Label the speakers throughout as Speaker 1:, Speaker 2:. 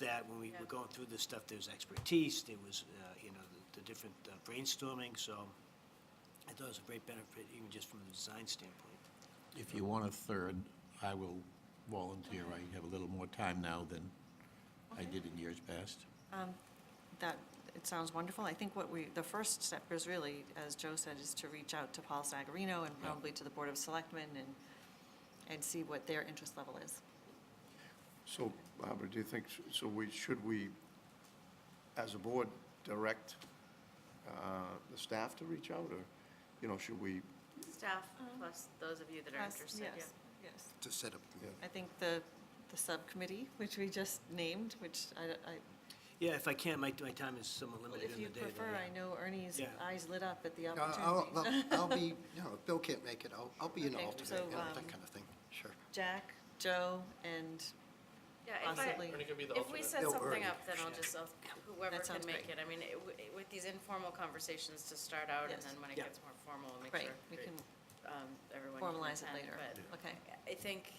Speaker 1: that when we were going through this stuff, there was expertise, there was, uh, you know, the the different uh, brainstorming, so I thought it was a great benefit, even just from the design standpoint.
Speaker 2: If you want a third, I will volunteer. I have a little more time now than I did in years past.
Speaker 3: That, it sounds wonderful. I think what we, the first step is really, as Joe said, is to reach out to Paul Sagarino and probably to the Board of Selectmen and, and see what their interest level is.
Speaker 4: So, Barbara, do you think, so we, should we, as a board, direct uh, the staff to reach out, or, you know, should we,
Speaker 5: Staff, plus those of you that are
Speaker 3: Yes,
Speaker 5: interested, yeah.
Speaker 3: Uh-huh. yes, Yes.
Speaker 6: to set up.
Speaker 3: I think the, the subcommittee, which we just named, which I, I,
Speaker 1: Yeah, if I can, my, my time is somewhat
Speaker 3: well,
Speaker 1: limited in
Speaker 3: if
Speaker 1: the
Speaker 3: you
Speaker 1: day. though,
Speaker 3: prefer,
Speaker 1: yeah.
Speaker 3: I know Ernie's
Speaker 1: Yeah.
Speaker 3: eyes lit up at the
Speaker 6: No, I'll,
Speaker 3: opportunity.
Speaker 6: I'll- I'll be, you know, if Bill can't make it, I'll, I'll be an
Speaker 3: Okay,
Speaker 6: alternate,
Speaker 3: so,
Speaker 6: you know,
Speaker 3: um,
Speaker 6: that kind of thing, sure.
Speaker 3: Jack, Joe, and
Speaker 5: Yeah, if I,
Speaker 3: possibly,
Speaker 5: if we set
Speaker 6: No,
Speaker 5: something
Speaker 6: early.
Speaker 5: up, then I'll just, I'll- whoever
Speaker 3: That
Speaker 5: can
Speaker 3: sounds
Speaker 5: make
Speaker 3: great.
Speaker 5: it. I mean, it w- it- with these informal conversations to start out, and
Speaker 3: Yes.
Speaker 5: then when it
Speaker 1: Yeah.
Speaker 5: gets more formal, we'll make
Speaker 3: right,
Speaker 5: sure
Speaker 3: we can
Speaker 5: um, everyone can
Speaker 3: formalize it later.
Speaker 5: attend, but-
Speaker 3: Okay,
Speaker 5: I think,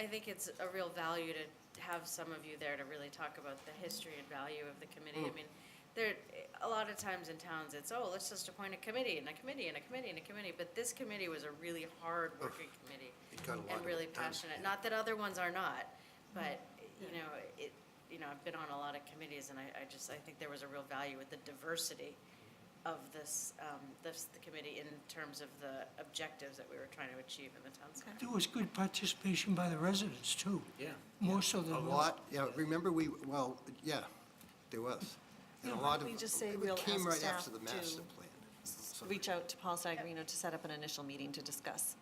Speaker 5: I think it's a real value to have some of you there to really talk about the history and value of the committee. I
Speaker 6: Mm.
Speaker 5: mean, there, a lot of times in towns, it's, oh, let's just appoint a committee and a committee and a committee and a committee, but this committee was a really hard working committee.
Speaker 6: It got a lot
Speaker 5: And
Speaker 6: of
Speaker 5: really
Speaker 6: it done,
Speaker 5: passionate,
Speaker 6: yeah.
Speaker 5: not that other ones are not, but, you
Speaker 6: Mm.
Speaker 5: know, it, you know, I've been on a lot of committees and I, I just, I think there was a real value with the diversity of this, um, this, the committee in terms of the objectives that we were trying to achieve in the town center.
Speaker 7: There was good participation by the residents, too.
Speaker 1: Yeah.
Speaker 7: More so than.
Speaker 6: A lot, yeah, remember we, well, yeah, there was. And a
Speaker 3: Yeah, why
Speaker 6: lot
Speaker 3: don't
Speaker 6: of,
Speaker 3: we
Speaker 6: it
Speaker 3: just say we'll
Speaker 6: came
Speaker 3: ask
Speaker 6: right after
Speaker 3: staff
Speaker 6: the master
Speaker 3: to
Speaker 6: plan. so-
Speaker 3: reach out to Paul Sagarino to set up an initial meeting to discuss.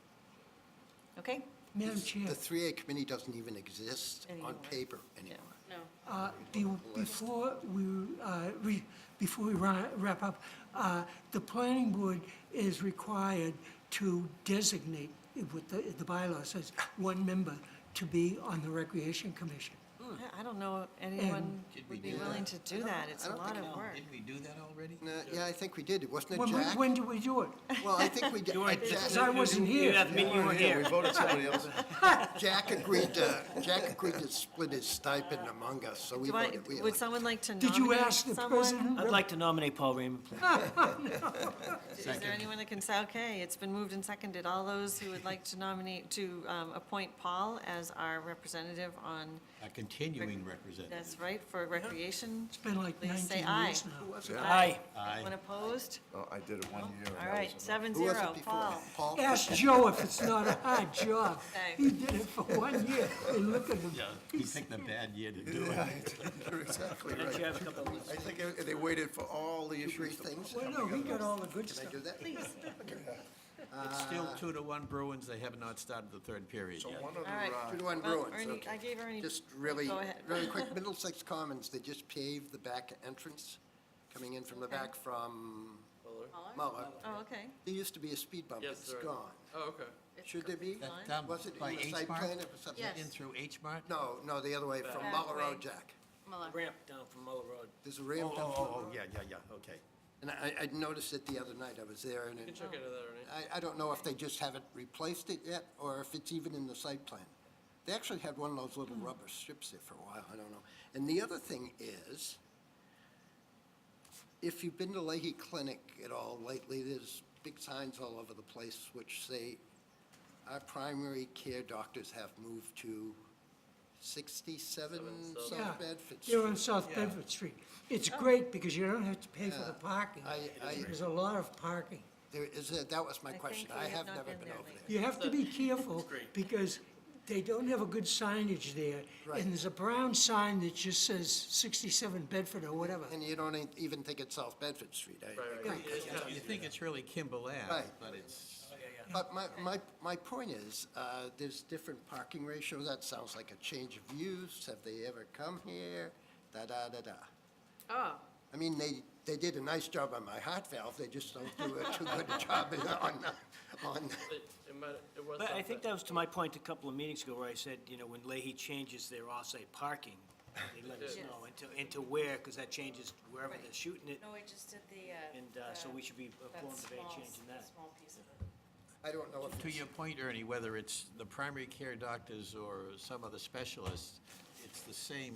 Speaker 3: Okay?
Speaker 7: Madam Chair,
Speaker 6: The three A committee doesn't even exist on
Speaker 3: Anymore.
Speaker 6: paper anymore.
Speaker 5: No,
Speaker 7: uh, be- before we, uh, re- before we ra- wrap up, uh, the planning board is required to designate, what the the bylaw says, one member to be on the Recreation Commission.
Speaker 6: Hmm.
Speaker 3: I- I don't know anyone
Speaker 2: Did we
Speaker 3: would be
Speaker 2: do that?
Speaker 3: willing to do that. It's
Speaker 6: I
Speaker 3: a
Speaker 6: don't
Speaker 3: lot
Speaker 6: think-
Speaker 3: of work.
Speaker 2: Didn't we do that already?
Speaker 6: No, yeah, I think we did, wasn't it
Speaker 7: When- when-
Speaker 6: Jack?
Speaker 7: When do we do it?
Speaker 6: Well, I think we did,
Speaker 7: Because I
Speaker 6: Jack,
Speaker 7: wasn't here.
Speaker 1: You have me, you were
Speaker 4: yeah,
Speaker 1: here.
Speaker 4: we voted somebody else?
Speaker 6: Jack agreed to, Jack agreed to split his stipend among us, so we
Speaker 3: Do I-
Speaker 6: voted, we
Speaker 3: Would
Speaker 6: elected.
Speaker 3: someone like to
Speaker 7: Did you
Speaker 3: nominate
Speaker 7: ask the
Speaker 3: someone?
Speaker 7: president?
Speaker 1: I'd like to nominate Paul Raymond, please.
Speaker 3: Is there anyone that can say, okay, it's been moved and seconded, all those who would like to nominate, to um, appoint Paul as our representative on,
Speaker 2: A continuing representative.
Speaker 3: that's right, for recreation?
Speaker 7: It's been like
Speaker 3: Please say
Speaker 7: 19
Speaker 3: aye.
Speaker 7: years now.
Speaker 1: Aye.
Speaker 2: Aye.
Speaker 3: Anyone opposed?
Speaker 4: Oh, I did it one year. and
Speaker 3: All
Speaker 4: that
Speaker 3: right,
Speaker 4: was enough.
Speaker 3: seven
Speaker 6: Who was
Speaker 3: zero,
Speaker 6: it before?
Speaker 3: Paul.
Speaker 6: Paul?
Speaker 7: Ask Joe if it's not a hard job.
Speaker 3: Thanks.
Speaker 7: He did it for one year, and look at him.
Speaker 2: Yeah, he picked a bad year to do it.
Speaker 6: You're exactly
Speaker 1: Don't you
Speaker 6: right.
Speaker 1: have a couple of
Speaker 4: I think they waited for all the
Speaker 6: Three
Speaker 4: issues to
Speaker 6: things.
Speaker 7: Well, Oh, no, he got all the good stuff.
Speaker 6: Can I do that? Please.
Speaker 2: It's still two to one Bruins. They have not started the third period
Speaker 4: So
Speaker 2: yet.
Speaker 4: one of the,
Speaker 3: All right.
Speaker 4: uh,
Speaker 6: Two to one
Speaker 3: Well,
Speaker 6: Bruins,
Speaker 3: Ernie,
Speaker 6: okay.
Speaker 3: I gave Ernie,
Speaker 6: Just really,
Speaker 3: Go ahead.
Speaker 6: really quick, Middlesex Commons, they just paved the back entrance coming in from the
Speaker 3: Okay.
Speaker 6: back from
Speaker 5: Muller?
Speaker 6: Muller.
Speaker 3: oh, okay.
Speaker 6: There used to be a speed bump,
Speaker 8: Yes,
Speaker 6: it's
Speaker 8: there is.
Speaker 6: gone.
Speaker 8: Oh, okay.
Speaker 6: Should there be?
Speaker 2: That down
Speaker 6: Was it
Speaker 2: by
Speaker 6: in the
Speaker 2: H
Speaker 6: site
Speaker 2: Mart?
Speaker 6: plan? It was something-
Speaker 5: Yes.
Speaker 2: In through H Mart?
Speaker 6: No, no, the other way, from
Speaker 5: Back
Speaker 6: Muller
Speaker 5: way.
Speaker 6: Road, Jack.
Speaker 5: Muller.
Speaker 1: ramp down from Muller Road.
Speaker 6: There's a ramp down.
Speaker 2: Oh, yeah, yeah, yeah, okay.
Speaker 6: And I, I noticed it the other night, I was there, and
Speaker 8: You can
Speaker 6: it-
Speaker 8: check into that, Ernie.
Speaker 6: I, I don't know if they just haven't replaced it yet, or if it's even in the site plan. They actually had one of those little
Speaker 7: Hmm.
Speaker 6: rubber strips there for a while, I don't know. And the other thing is, if you've been to Leahy Clinic at all lately, there's big signs all over the place which say, our primary care doctors have moved to sixty-seven
Speaker 7: Yeah.
Speaker 6: South Bedford Street.
Speaker 7: You're on South Bedford Street. It's great because you don't have to pay for the parking.
Speaker 6: I- I-
Speaker 7: There's a lot of parking.
Speaker 6: There is, a- that was my
Speaker 3: think
Speaker 6: question,
Speaker 3: we
Speaker 6: I
Speaker 3: have
Speaker 6: have
Speaker 3: not
Speaker 6: never
Speaker 3: been
Speaker 6: been
Speaker 3: there
Speaker 6: over
Speaker 3: lately.
Speaker 6: there.
Speaker 7: You have to be careful because they don't have a good signage there.
Speaker 6: Right.
Speaker 7: And there's a brown sign that just says 67 Bedford or whatever.
Speaker 6: And you don't e-, even think it's South Bedford Street, I agree.
Speaker 2: You think it's really Kimball Ave,
Speaker 6: Right.
Speaker 2: but it's,
Speaker 6: But my, my, my point is, uh, there's different parking ratios, that sounds like a change of use, have they ever come here, da-da-da-da.
Speaker 5: Oh,
Speaker 6: I mean, they, they did a nice job on my heart valve, they just don't do a too good a job on, on,
Speaker 8: It, it might, it was
Speaker 1: But I
Speaker 8: something.
Speaker 1: think that was to my point a couple of meetings ago where I said, you know, when Leahy changes their off-site parking, they let us know into, into where, because that changes wherever they're shooting it.
Speaker 5: no, we just did the, uh.
Speaker 1: And, uh, so we should be informed of any change in that.
Speaker 5: small piece of it.
Speaker 6: I don't know if
Speaker 2: to
Speaker 6: it's,
Speaker 2: your point, Ernie, whether it's the primary care doctors or some other specialists, it's the same